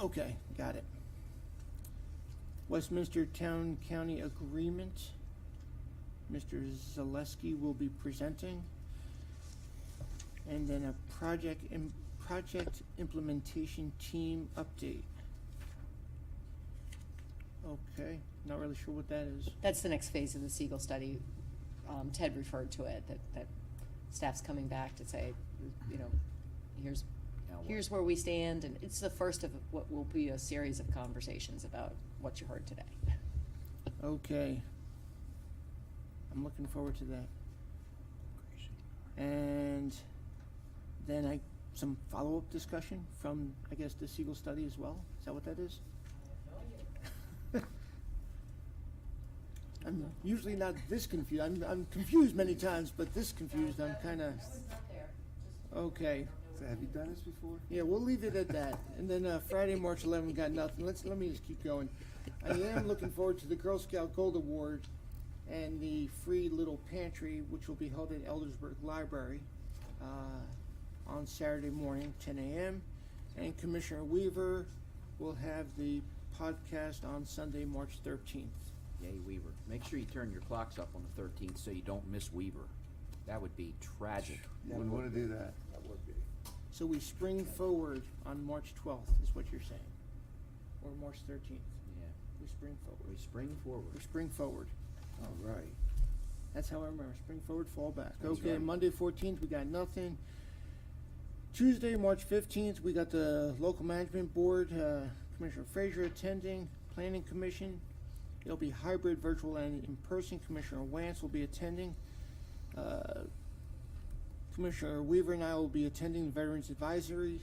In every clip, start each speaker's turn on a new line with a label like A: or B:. A: Okay, got it. Westminster Town County Agreement. Mr. Zaleski will be presenting. And then a project, im- project implementation team update. Okay, not really sure what that is.
B: That's the next phase of the Siegel study. Um, Ted referred to it, that, that staff's coming back to say, you know, here's,
C: Now what?
B: here's where we stand, and it's the first of what will be a series of conversations about what you heard today.
A: Okay. I'm looking forward to that. And then I, some follow-up discussion from, I guess, the Siegel study as well? Is that what that is? I'm usually not this confused. I'm, I'm confused many times, but this confused, I'm kinda, okay.
C: So have you done this before?
A: Yeah, we'll leave it at that. And then uh, Friday, March 11, got nothing. Let's let me just keep going. I am looking forward to the Girl Scout Gold Award and the free little pantry, which will be held at Eldersburg Library uh, on Saturday morning, 10 a.m. And Commissioner Weaver will have the podcast on Sunday, March 13th.
C: Yay, Weaver. Make sure you turn your clocks up on the thirteenth so you don't miss Weaver. That would be tragic.
D: Wouldn't wanna do that.
A: So we spring forward on March 12th, is what you're saying, or March 13th.
C: Yeah,
A: We spring forward.
C: we spring
A: We
C: forward.
A: spring forward.
D: All right.
A: That's how I remember. Spring forward, fall back.
C: That's
A: okay,
C: right.
A: Monday fourteenth, we got nothing. Tuesday, March fifteenth, we got the local management board, uh, Commissioner Frazier attending, planning commission. It'll be hybrid, virtual, and in person. Commissioner Wance will be attending. Uh, Commissioner Weaver and I will be attending the Veterans Advisory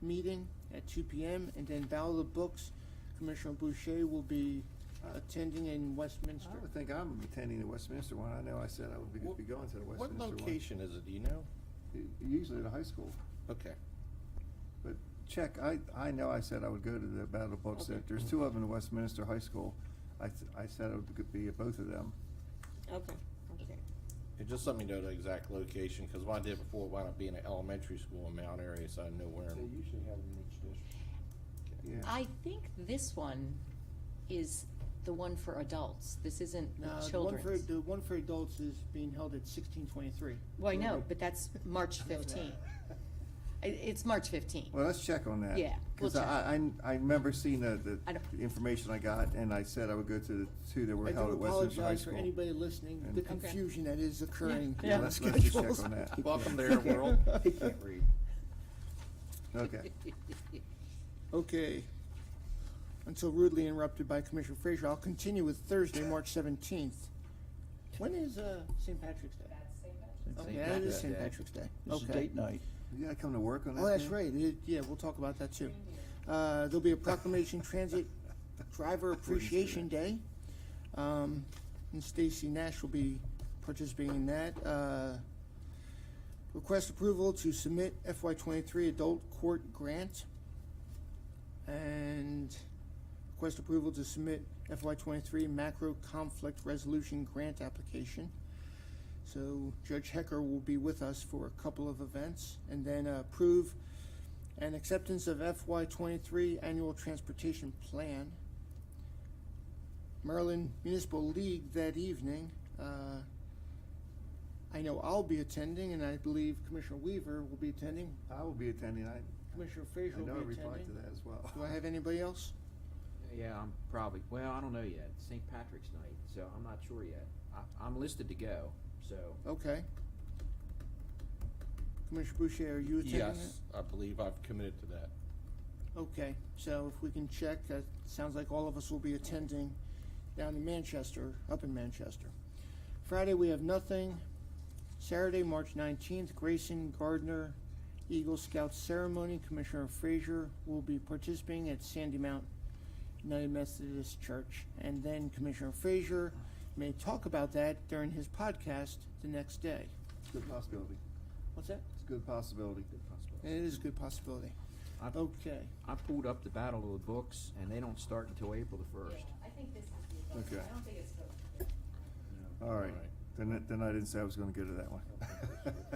A: meeting at two p.m. and then Battle of the Books. Commissioner Boucher will be uh, attending in Westminster.
D: I would think I'm attending the Westminster one. I know I said I would be,
E: What-
D: be going to the Westminster
E: What
D: one.
E: location is it, do you know?
D: U- Usually at a high school.
E: Okay.
D: But check, I, I know I said I would go to the Battle of Books.
E: Okay.
D: There's two of them at Westminster High School. I, s- I said I would be at both of them.
F: Okay, okay.
E: It just let me know the exact location, because what I did before wound up being an elementary school in Mount Airy, so I know where.
C: usually have them in each district.
D: Yeah.
B: I think this one is the one for adults. This isn't
A: No,
B: the
A: Uh, the one for,
B: children's.
A: the one for adults is being held at sixteen twenty-three.
B: Well, I know, but that's March fifteenth. it's March fifteenth.
D: Well, let's check on that.
B: Yeah, we'll
D: Because I, I, I remember seeing the, the
B: I don't-
D: the information I got and I said I would go to the two that were
A: I do
D: held at Westminster High
A: apologize
D: School.
A: for anybody listening,
D: And-
A: the
D: Okay.
A: confusion that is occurring
B: Yeah.
A: in
D: Let's, let's just check
A: schedules.
D: on that.
E: Welcome to their world.
C: He can't read.
D: Okay.
A: Okay. Until rudely interrupted by Commissioner Frazier, I'll continue with Thursday, March seventeenth. When is, uh, St. Patrick's Day? Okay,
C: Saint
A: that is
C: Patrick's
A: St.
C: Day.
A: Patrick's Day.
G: This is
A: Okay.
G: date night.
D: You gotta come to work on that.
A: Oh, that's
D: thing?
A: right. It- yeah, we'll talk about that too. Uh, there'll be a proclamation transit driver appreciation day. Um, and Stacy Nash will be participating in that. Uh, request approval to submit FY twenty-three adult court grant. And request approval to submit FY twenty-three macro conflict resolution grant application. So Judge Hecker will be with us for a couple of events and then uh, approve an acceptance of FY23 annual transportation plan. Maryland Municipal League that evening. Uh, I know I'll be attending and I believe Commissioner Weaver will be attending.
D: I will be attending. I,
A: Commissioner Frazier
D: I
A: will
D: know I
A: be
D: replied to
A: attending.
D: that as well.
A: Do I have anybody else?
C: Yeah, I'm probably, well, I don't know yet. St. Patrick's Night, so I'm not sure yet. I, I'm listed to go, so.
A: Okay. Commissioner Boucher, are you attending that?
E: Yes, I believe I've committed to that.
A: Okay, so if we can check, uh sounds like all of us will be attending down in Manchester, up in Manchester. Friday, we have nothing. Saturday, March nineteenth, Grayson Gardner Eagle Scout Ceremony. Commissioner Frazier will be participating at Sandy Mount United Methodist Church. And then Commissioner Frazier may talk about that during his podcast the next day.
D: It's a good possibility.
A: What's that?
D: It's a good possibility.
C: good possibility.
A: It is a good possibility.
C: I,
A: Okay.
C: I pulled up the Battle of the Books, and they don't start until April the first.
B: I think this is
D: Okay. I don't
B: think it's
D: All right.
E: All right.
D: Then, I- then I didn't say I was gonna go to that one.